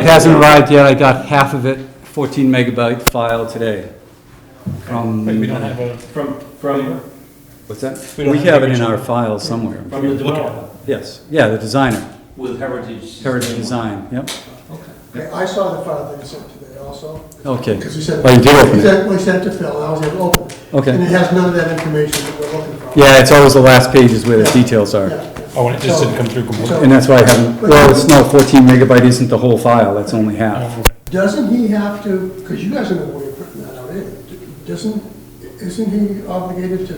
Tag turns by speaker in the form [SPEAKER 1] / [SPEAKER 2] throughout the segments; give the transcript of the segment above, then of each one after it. [SPEAKER 1] It hasn't arrived yet, I got half of it, 14 megabyte file today. From,
[SPEAKER 2] But we don't have a,
[SPEAKER 3] From, from,
[SPEAKER 1] what's that?
[SPEAKER 2] we don't
[SPEAKER 1] We
[SPEAKER 2] have the
[SPEAKER 1] have it in
[SPEAKER 2] original.
[SPEAKER 1] our file somewhere.
[SPEAKER 3] from the
[SPEAKER 2] Look at
[SPEAKER 3] developer,
[SPEAKER 1] Yes, yeah, the designer,
[SPEAKER 3] with Heritage.
[SPEAKER 1] Heritage Design, yep.
[SPEAKER 4] Okay, I saw the file that you sent today also.
[SPEAKER 1] Okay.
[SPEAKER 4] Because you said.
[SPEAKER 1] Oh, you did open it.
[SPEAKER 4] We sent- We sent to Phil, and I was able to open it.
[SPEAKER 1] Okay.
[SPEAKER 4] And it has none of that information that we're looking for.
[SPEAKER 1] Yeah, it's always the last pages where the details are.
[SPEAKER 4] Yeah.
[SPEAKER 2] oh, and it just didn't come through completely.
[SPEAKER 1] And that's why I haven't, well, it's no, 14 megabyte isn't the whole file, that's only half.
[SPEAKER 4] Doesn't he have to, because you guys are the way of putting that out either, doesn't, isn't he obligated to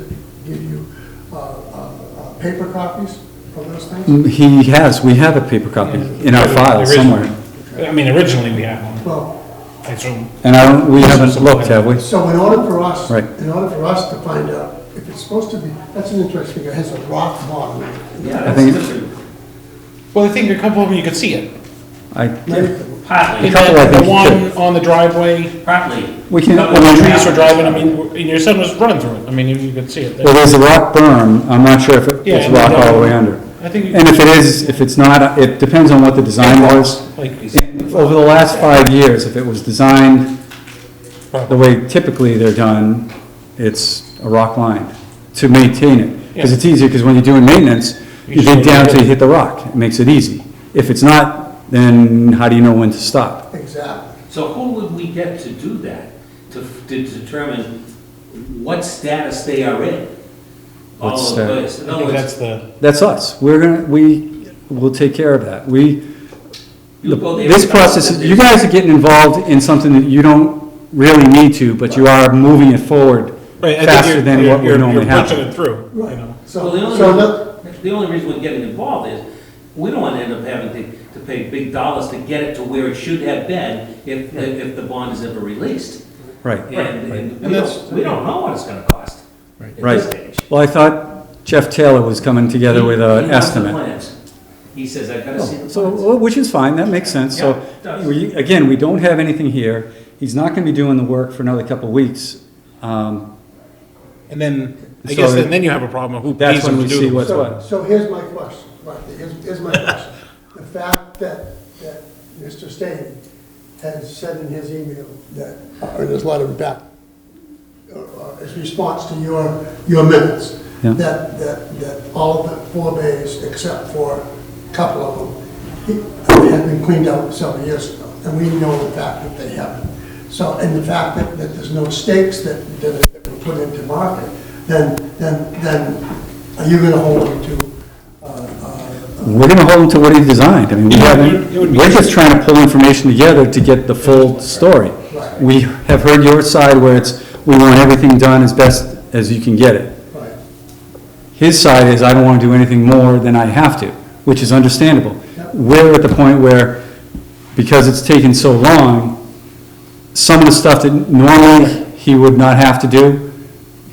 [SPEAKER 4] give you uh, uh, uh, paper copies of those things?
[SPEAKER 1] Mm, He has, we have a paper copy in our file somewhere.
[SPEAKER 2] I mean, originally we had one,
[SPEAKER 4] Well,
[SPEAKER 2] I assume.
[SPEAKER 1] And I don't, we haven't looked, have we?
[SPEAKER 4] so in order for us,
[SPEAKER 1] Right.
[SPEAKER 4] in order for us to find out if it's supposed to be, that's an interesting, it has a rock bottom.
[SPEAKER 3] Yeah,
[SPEAKER 1] I
[SPEAKER 3] that's
[SPEAKER 1] think-
[SPEAKER 3] different,
[SPEAKER 2] Well, I think a couple of them you could see it.
[SPEAKER 1] I,
[SPEAKER 4] Now you can-
[SPEAKER 3] partly,
[SPEAKER 2] And
[SPEAKER 1] couple, I
[SPEAKER 2] then
[SPEAKER 1] think,
[SPEAKER 2] the
[SPEAKER 1] you
[SPEAKER 2] one on the driveway,
[SPEAKER 3] partly.
[SPEAKER 1] We can-
[SPEAKER 3] Couple
[SPEAKER 2] when
[SPEAKER 3] of
[SPEAKER 2] the trees
[SPEAKER 3] traffic.
[SPEAKER 2] were driving, I mean, and your son was running through it, I mean, you- you could see it.
[SPEAKER 1] well, there's a rock berm, I'm not sure if it-
[SPEAKER 2] Yeah,
[SPEAKER 1] it's
[SPEAKER 2] and
[SPEAKER 1] rock
[SPEAKER 2] then-
[SPEAKER 1] all the way under.
[SPEAKER 2] I think you
[SPEAKER 1] And if it is, if it's not, it depends on what the design was.
[SPEAKER 2] Like, is it-
[SPEAKER 1] Over the last five years, if it was designed the way typically they're done, it's a rock line to maintain it. Because
[SPEAKER 2] Yeah.
[SPEAKER 1] it's easier, because when you're doing maintenance,
[SPEAKER 2] You
[SPEAKER 1] you
[SPEAKER 2] just
[SPEAKER 1] dig
[SPEAKER 2] go
[SPEAKER 1] down
[SPEAKER 2] right
[SPEAKER 1] till you
[SPEAKER 2] in.
[SPEAKER 1] hit the rock. It makes it easy. If it's not, then how do you know when to stop?
[SPEAKER 4] Exactly.
[SPEAKER 3] So who would we get to do that, to, to determine what status they are in?
[SPEAKER 1] What
[SPEAKER 3] All of
[SPEAKER 1] status?
[SPEAKER 3] this, in
[SPEAKER 2] I
[SPEAKER 3] other
[SPEAKER 2] think
[SPEAKER 3] words,
[SPEAKER 2] that's the,
[SPEAKER 1] That's us. We're gonna, we will take care of that. We,
[SPEAKER 3] you go there.
[SPEAKER 1] This process, is- you guys are getting involved in something that you don't really need to, but you are moving it forward
[SPEAKER 2] right, I
[SPEAKER 1] faster
[SPEAKER 2] think
[SPEAKER 1] than
[SPEAKER 2] you're,
[SPEAKER 1] what
[SPEAKER 2] you're,
[SPEAKER 1] would normally
[SPEAKER 2] you're pushing
[SPEAKER 1] happen.
[SPEAKER 2] it through, you
[SPEAKER 4] Right.
[SPEAKER 2] know.
[SPEAKER 4] So,
[SPEAKER 3] Well, the
[SPEAKER 4] so that,
[SPEAKER 3] only, the only reason we're getting involved is, we don't want to end up having to, to pay big dollars to get it to where it should have been if, if the bond is ever released.
[SPEAKER 1] Right,
[SPEAKER 3] And, and we
[SPEAKER 2] And that's-
[SPEAKER 3] don't, we don't know what it's gonna cost at this
[SPEAKER 1] right.
[SPEAKER 3] stage.
[SPEAKER 1] Well, I thought Jeff Taylor was coming together with
[SPEAKER 3] He-
[SPEAKER 1] an
[SPEAKER 3] he wants the
[SPEAKER 1] estimate. Oh,
[SPEAKER 3] plans. He says, I've gotta see the
[SPEAKER 1] So,
[SPEAKER 3] plans.
[SPEAKER 1] well, which is fine, that makes sense,
[SPEAKER 3] Yeah,
[SPEAKER 1] so,
[SPEAKER 3] it does.
[SPEAKER 1] we- again, we don't have anything here, he's not gonna be doing the work for another couple of weeks. Um,
[SPEAKER 2] And then, I
[SPEAKER 1] So
[SPEAKER 2] guess,
[SPEAKER 1] it-
[SPEAKER 2] and then you have a problem of who
[SPEAKER 1] That's
[SPEAKER 2] pays them
[SPEAKER 1] when
[SPEAKER 2] to
[SPEAKER 1] we see
[SPEAKER 2] do
[SPEAKER 1] what-
[SPEAKER 2] it.
[SPEAKER 1] That's
[SPEAKER 4] so, so here's my question, right, here's, here's my question. The fact that, that Mr. Stain has said in his email that, or his letter back, uh, uh, his response to your, your minutes,
[SPEAKER 1] Yeah.
[SPEAKER 4] that, that, that all of the four bays, except for a couple of them, he- have been cleaned out several years ago, and we know the fact that they haven't. So, and the fact that, that there's no stakes that, that were put into market, then, then, then are you gonna hold them to, uh, uh,
[SPEAKER 1] We're gonna hold him to what he designed, I mean, we
[SPEAKER 2] Yeah,
[SPEAKER 1] haven't,
[SPEAKER 2] it would be-
[SPEAKER 1] we're just trying to pull information together to get the full story.
[SPEAKER 4] Right.
[SPEAKER 1] We have heard your side where it's, we want everything done as best as you can get it.
[SPEAKER 4] right?
[SPEAKER 1] His side is, I don't want to do anything more than I have to, which is understandable.
[SPEAKER 4] Yep.
[SPEAKER 1] We're at the point where, because it's taken so long, some of the stuff that normally he would not have to do,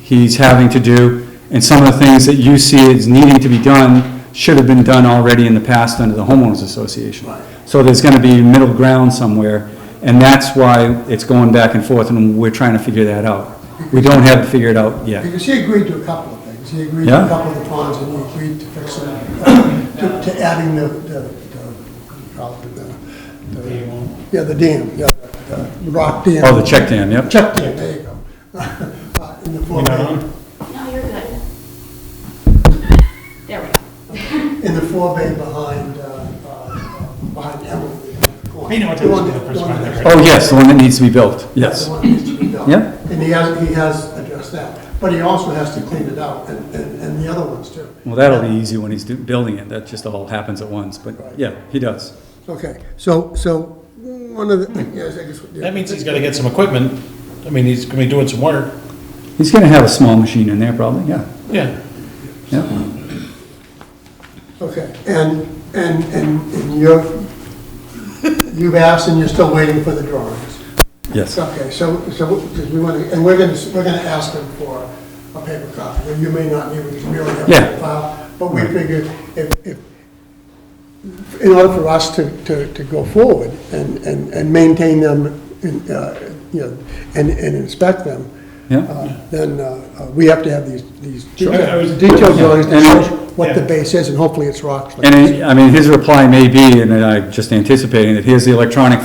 [SPEAKER 1] he's having to do, and some of the things that you see as needing to be done should have been done already in the past under the homeowners association.
[SPEAKER 4] Right.
[SPEAKER 1] So there's gonna be middle ground somewhere, and that's why it's going back and forth, and we're trying to figure that out. We don't have it figured out yet.
[SPEAKER 4] Because he agreed to a couple of things. He agreed to
[SPEAKER 1] Yeah.
[SPEAKER 4] a couple of the ponds and he agreed to fixing, uh, to to adding the, the, the- probably the- the, yeah, the dam, yeah, the- the rock dam.
[SPEAKER 1] Oh, the check dam, yep.
[SPEAKER 4] Check dam, there you go. Uh, In the four
[SPEAKER 2] You
[SPEAKER 4] bay,
[SPEAKER 2] know?
[SPEAKER 5] No, you're good. There we go.
[SPEAKER 4] in the four bay behind, uh, uh, behind Emily.
[SPEAKER 2] I know what
[SPEAKER 4] The
[SPEAKER 2] that
[SPEAKER 4] one
[SPEAKER 2] is,
[SPEAKER 4] that-
[SPEAKER 2] the first
[SPEAKER 4] the one
[SPEAKER 2] one
[SPEAKER 4] that-
[SPEAKER 2] there.
[SPEAKER 1] Oh, yes, the one that needs to be built,
[SPEAKER 4] The
[SPEAKER 1] yes.
[SPEAKER 4] one that needs to be done.
[SPEAKER 1] Yeah.
[SPEAKER 4] And he has, he has addressed that, but he also has to clean it out and, and and the other ones too.
[SPEAKER 1] Well, that'll be easy when he's do- building it, that just all happens at once, but yeah, he does.
[SPEAKER 4] Okay, so, so, one of the, yes, I guess.
[SPEAKER 2] That means he's gotta get some equipment, I mean, he's gonna be doing some work,
[SPEAKER 1] He's gonna have a small machine in there probably, yeah,
[SPEAKER 2] yeah.
[SPEAKER 1] yeah.
[SPEAKER 4] Okay, and, and, and and you're, you've asked and you're still waiting for the drawings.
[SPEAKER 1] Yes,
[SPEAKER 4] Okay, so, so, because we want to, and we're going to, we're going to ask them for a paper copy, and you may not need, we really have
[SPEAKER 1] Yeah.
[SPEAKER 4] a file, but we figured if, if, in order for us to, to, to go forward and, and, and maintain them, and, uh, you know, and, and inspect them,
[SPEAKER 1] yeah.
[SPEAKER 4] uh, then uh, uh, we have to have these, these
[SPEAKER 2] I was-
[SPEAKER 4] detailed detailed drawings to
[SPEAKER 1] And-
[SPEAKER 4] show what the
[SPEAKER 2] yeah.
[SPEAKER 4] base is, and hopefully it's rock.
[SPEAKER 1] And I I mean, his reply may be, and I'm just anticipating, that here's the electronic